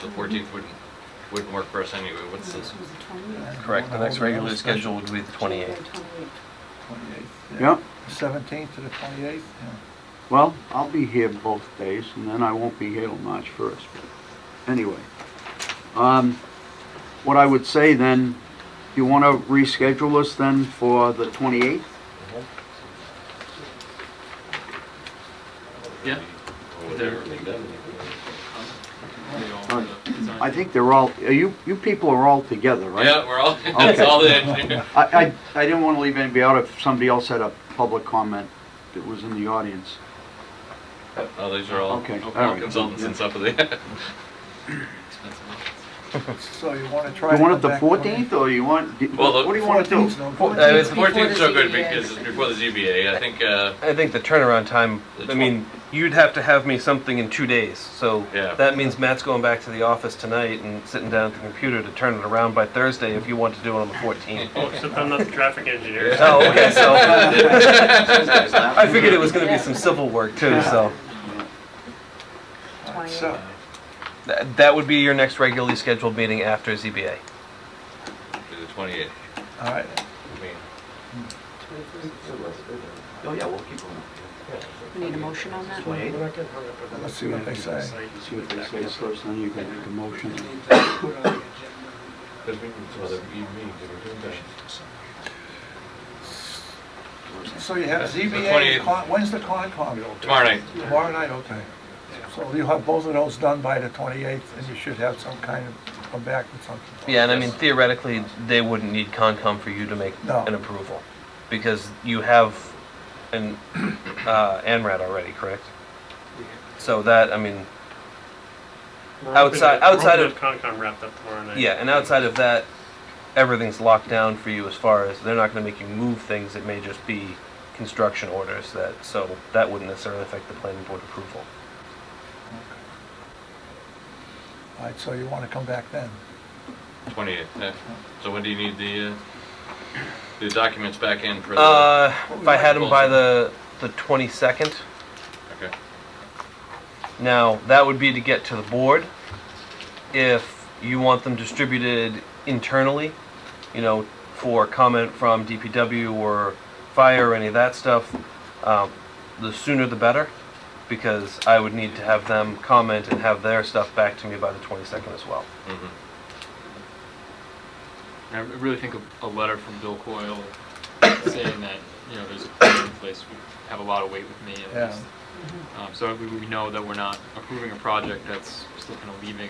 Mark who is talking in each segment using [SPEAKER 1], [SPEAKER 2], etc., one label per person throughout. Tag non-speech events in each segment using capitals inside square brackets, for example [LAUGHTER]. [SPEAKER 1] The- The fourteenth wouldn't, wouldn't work for us anyway, what's this?
[SPEAKER 2] Correct, the next regularly scheduled would be the 28th.
[SPEAKER 3] 28th.
[SPEAKER 4] Yeah,
[SPEAKER 3] 17th to the 28th, yeah.
[SPEAKER 4] well, I'll be here both days, and then I won't be here till March 1st. But Anyway, um, what I would say then, you want to reschedule us then for the 28th?
[SPEAKER 5] Yeah.
[SPEAKER 4] Or- I think they're all, are you, you people are all together, right?
[SPEAKER 1] Yeah, we're all, [LAUGHS] that's
[SPEAKER 4] Okay.
[SPEAKER 1] all the
[SPEAKER 4] [LAUGHS]
[SPEAKER 1] engineer.
[SPEAKER 4] I, I, I didn't want to leave anybody out if somebody else had a public comment that was in the audience.
[SPEAKER 1] Oh, these are all
[SPEAKER 4] Okay, all
[SPEAKER 1] all
[SPEAKER 4] right.
[SPEAKER 1] consultants and stuff of the. [LAUGHS]
[SPEAKER 3] So you want to try to
[SPEAKER 4] You
[SPEAKER 3] come
[SPEAKER 4] want it the
[SPEAKER 3] back
[SPEAKER 4] 14th, or you want, d-
[SPEAKER 1] Well, the
[SPEAKER 4] what do you want to do?
[SPEAKER 3] 14th 's no
[SPEAKER 1] Well,
[SPEAKER 3] good.
[SPEAKER 2] I was-
[SPEAKER 1] the
[SPEAKER 6] Before
[SPEAKER 1] fourteenth's so
[SPEAKER 6] the
[SPEAKER 1] good
[SPEAKER 6] ZBA.
[SPEAKER 1] because it's before the ZBA, I think, uh,
[SPEAKER 2] I think the turnaround time, I mean, you'd have to have me something in two days, so
[SPEAKER 1] Yeah.
[SPEAKER 2] that means Matt's going back to the office tonight and sitting down at the computer to turn it around by Thursday if you want to do it on the 14th.
[SPEAKER 7] Oh, except I'm not the traffic engineer.
[SPEAKER 2] Oh, okay,
[SPEAKER 1] [LAUGHS]
[SPEAKER 2] so, I
[SPEAKER 4] I
[SPEAKER 2] figured it was gonna be some civil work too, so.
[SPEAKER 3] So,
[SPEAKER 2] Th- That would be your next regularly scheduled meeting after ZBA.
[SPEAKER 1] the twenty-eighth.
[SPEAKER 3] all right,
[SPEAKER 8] Oh, yeah, we'll keep them.
[SPEAKER 6] We need a motion on that?
[SPEAKER 8] Twenty-eight?
[SPEAKER 3] let's see what they say.
[SPEAKER 4] See what they say first, then you can make a motion.
[SPEAKER 3] So you have ZBA,
[SPEAKER 1] 28th.
[SPEAKER 3] con- when's the Concom?
[SPEAKER 1] Tomorrow night.
[SPEAKER 3] Tomorrow night, okay. So you'll have both of those done by the 28th, and you should have some kind of, come back with something.
[SPEAKER 2] Yeah, and I mean theoretically, they wouldn't need Concom for you to make
[SPEAKER 3] No.
[SPEAKER 2] an approval, because you have an uh, ANRAD already, correct? So that, I mean,
[SPEAKER 7] We're hoping
[SPEAKER 2] Outside-
[SPEAKER 7] to- we're
[SPEAKER 2] outside
[SPEAKER 7] hoping
[SPEAKER 2] of-
[SPEAKER 7] to have Concom wrapped up tomorrow night.
[SPEAKER 2] yeah, and outside of that, everything's locked down for you as far as, they're not gonna make you move things, it may just be construction orders that, so that wouldn't necessarily affect the planning board approval.
[SPEAKER 3] All right, so you want to come back then?
[SPEAKER 1] Twenty-eighth, yeah. So when do you need the, uh, the documents back in for the?
[SPEAKER 2] Uh, if I had them by the, the twenty-second,
[SPEAKER 1] Okay.
[SPEAKER 2] Now, that would be to get to the board. If you want them distributed internally, you know, for comment from DPW or fire or any of that stuff, um, the sooner the better, because I would need to have them comment and have their stuff back to me by the 22nd as well.
[SPEAKER 1] Mhm.
[SPEAKER 9] I really think a, a letter from Bill Coyle saying that, you know, there's a plan in place would have a lot of weight with me
[SPEAKER 3] Yeah.
[SPEAKER 9] at least. Um, so we, we know that we're not approving a project that's still kind of leaving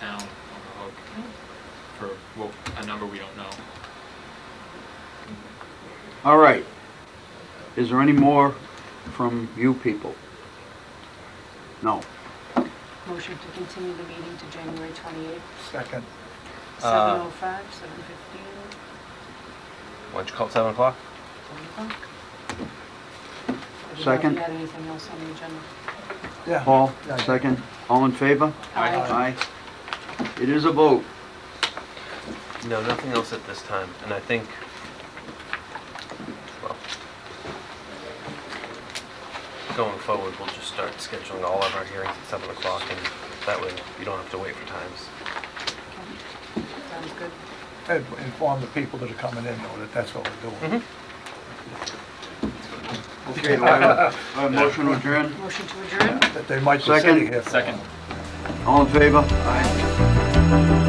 [SPEAKER 9] town on the hook for, well, a number we don't know.
[SPEAKER 4] All right. Is there any more from you people? No.
[SPEAKER 6] Motion to continue the meeting to January oh 28th,
[SPEAKER 3] Second,
[SPEAKER 6] 7:05, 7:15,
[SPEAKER 2] Why don't you call it 7 o'clock?
[SPEAKER 6] 7 o'clock.
[SPEAKER 4] Second.
[SPEAKER 6] Did you have anything else on the agenda?
[SPEAKER 3] yeah.
[SPEAKER 4] Paul,
[SPEAKER 3] Yeah.
[SPEAKER 4] second. All in favor?
[SPEAKER 6] Aye.
[SPEAKER 4] Aye. It is a vote.
[SPEAKER 2] No, nothing else at this time, and I think, well, going forward, we'll just start scheduling all of our hearings at seven o'clock, and that way you don't have to wait for times.
[SPEAKER 6] Okay. Sounds good.
[SPEAKER 3] And Inform the people that are coming in, though, that that's what we're
[SPEAKER 2] Mm-hmm.
[SPEAKER 3] doing.
[SPEAKER 4] Okay, [LAUGHS] do I have a- I have a motion to adjourn?
[SPEAKER 6] Motion to adjourn?
[SPEAKER 3] That they might be sitting
[SPEAKER 4] Second.
[SPEAKER 3] here. for a
[SPEAKER 9] Second.
[SPEAKER 3] while.
[SPEAKER 4] All in favor? Aye.